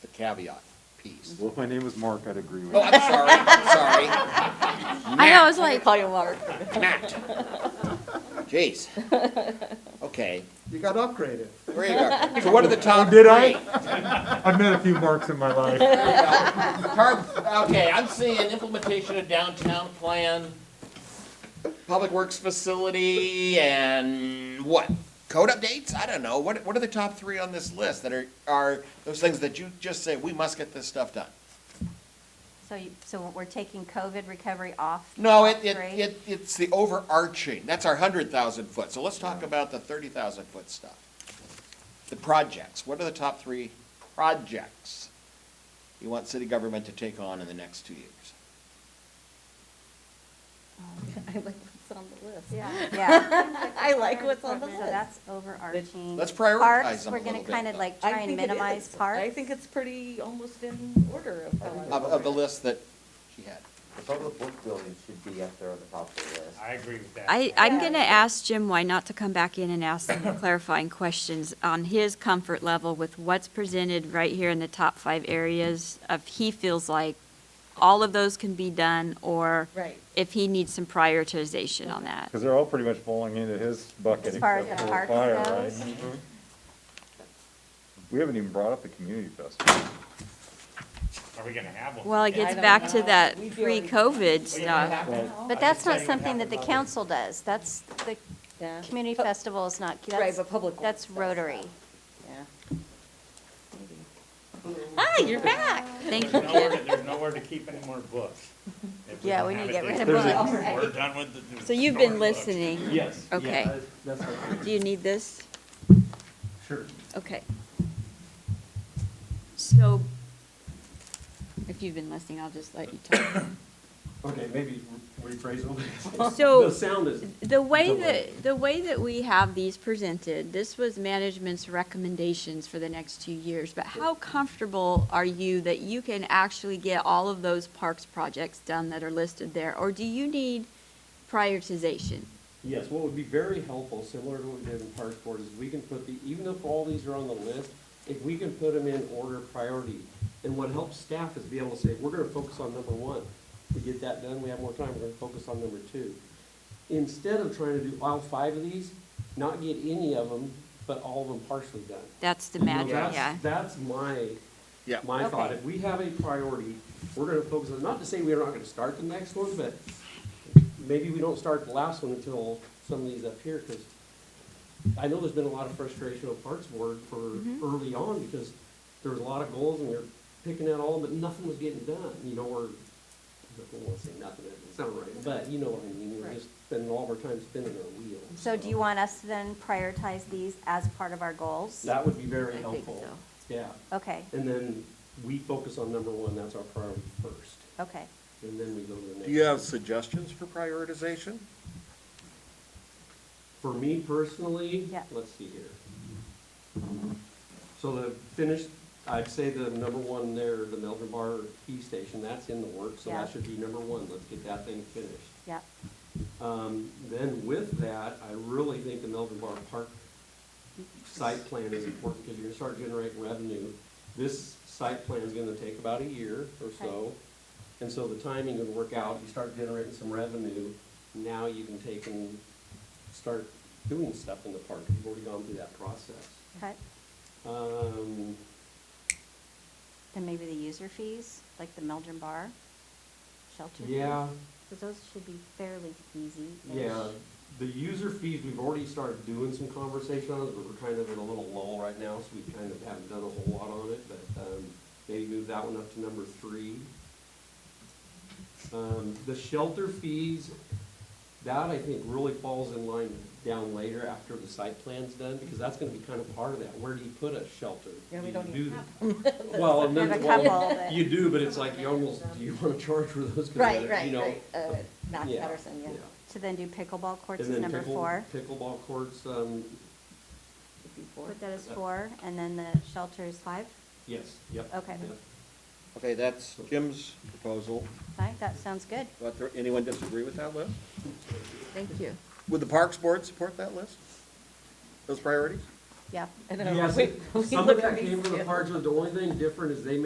caveat piece. Well, if my name was Mark, I'd agree with Oh, you. I'm sorry, I'm sorry. I know, I was like, Call you Mark. Matt. Jeez. Okay. You got upgraded. There you go. So what are the top three? did I? I've met a few Marks in my life. Tar- Okay, I'm seeing Implementation of downtown plan, public works facility and what? Code updates? I don't know. What, what are the top three on this list that are, are those things that you just say, we must get this stuff done? so you, so we're taking COVID recovery off? No, it, it, Right. it, it's the overarching, that's our hundred thousand foot, so let's Mm. talk about the thirty thousand foot stuff. The projects, what are the top three projects you want city government to take on in the next two years? I like what's on the list. Yeah, yeah. I like what's on the So list. that's overarching. Let's prioritize Parks, them a we're gonna little bit, kind of though. like I try and think it minimize is. parks. I think it's pretty almost in order of. how Of, I- of the list that she had. The public work building should be up there on the top of the list. I agree with that. I, I'm going to ask Jim why not to come back in and ask some clarifying questions on his comfort level with what's presented right here in the top five areas of he feels like all of those can be done, or Right. if he needs some prioritization on that. Because they're all pretty much falling into his bucket As far as except the for parks fire, goes. right? We haven't even brought up the community festival. Are we gonna have one? Well, it I gets don't back to know. that We've already- pre-COVID Well, you know what stuff. happened? But I that's can tell not you what something that happened the last- council does, that's, the Yeah. community Pu- festival is not, Right, that's, but public. works, that's Rotary. Yeah. Maybe. Hi, you're back. Thank you, There's nowhere, Kim. to- there's nowhere to keep any more books. If Yeah, don't we need have to it, get rid of there's- books. We're done with the. there's So you've no been more books. listening. Yes. yeah, Okay. that- That's what, Do you need this? sure. Okay. So, if you've been listening, I'll just let you talk. Okay, maybe rephrase a little bit. So- The sound is, The way Delay. that, the way that we have these presented, this was management's recommendations for the next two years, but how comfortable are you that you can actually get all of those parks projects done that are listed there? Or do you need prioritization? yes, what would be very helpful, similar to what we did in Parks Board, is we can put the, even if all these are on the list, if we can put them in order of priority. And what helps staff is be able to say, we're gonna focus on number one. We get that done, we have more time, we're gonna focus on number two. Instead of trying to do all five of these, not get any of them, but all of them partially done. That's the You know, magic, that's- yeah. That's my Yeah. my thought, Okay. if we have a priority, we're gonna focus on, not to say we're not gonna start the next one, but maybe we don't start the last one until some of these up here, because I know there's been a lot of frustration on Parks Board for Mm-hmm. early on, because there was a lot of goals and we were picking at all, but nothing was getting done, you know, or, I don't wanna say nothing, that doesn't sound right, but you know what I mean, we were Right. just spending all of our time spinning our wheels. So do you want us to then prioritize these as part of our goals? That would be I very think helpful, yeah, Okay, and then we focus on number one, that's our priority first. okay. And then we go to the next. Do you have suggestions for prioritization? For me personally, Yeah. let's see here. So the finished, I'd say the number one there, the Melvin Bar Key Station, that's in the works, so Yeah. that should be number one. Let's get that thing finished. Yep, Um, then with that, I really think the Melvin Bar Park site plan is important because you're gonna start generating revenue. This site plan is gonna take about a year or so. And so the timing would work out, you start generating some revenue, now you can take and start doing stuff in the park. You've already gone through that process. okay. Um, Then maybe the user fees, like the Meldrum Bar, shelter. fees, yeah, 'cause those should be fairly easy. Yeah, Um, the user fees, we've already started doing some conversation on it, but we're kind of in a little lull right now, so we kind of haven't done a whole lot on it, but, um, maybe move that one up to number three. Um, the shelter fees, that I think really falls in line down later after the site plan's done, because that's gonna be kind of part of that, where do you put a shelter? Yeah, we Do don't you even do- Well, and We have then, a well, couple that, you do, but it's like, you almost, do you wanna charge for those? 'Cause Right, they're, right, you know, right. Uh, Matt yeah, Patterson, yeah. yeah. to then do pickleball courts And is then number pickle- four. Pickleball courts, um, Before. Put that as four, and then the shelter is five. yes, yep. Okay. yep. Okay, that's Jim's proposal. Right, that sounds good. What, anyone disagree with that list? Thank you. Would the Parks Board support that list? Those priorities? Yeah. And then Yes, we- we some look of that at came from the these. parks, but the only thing different is they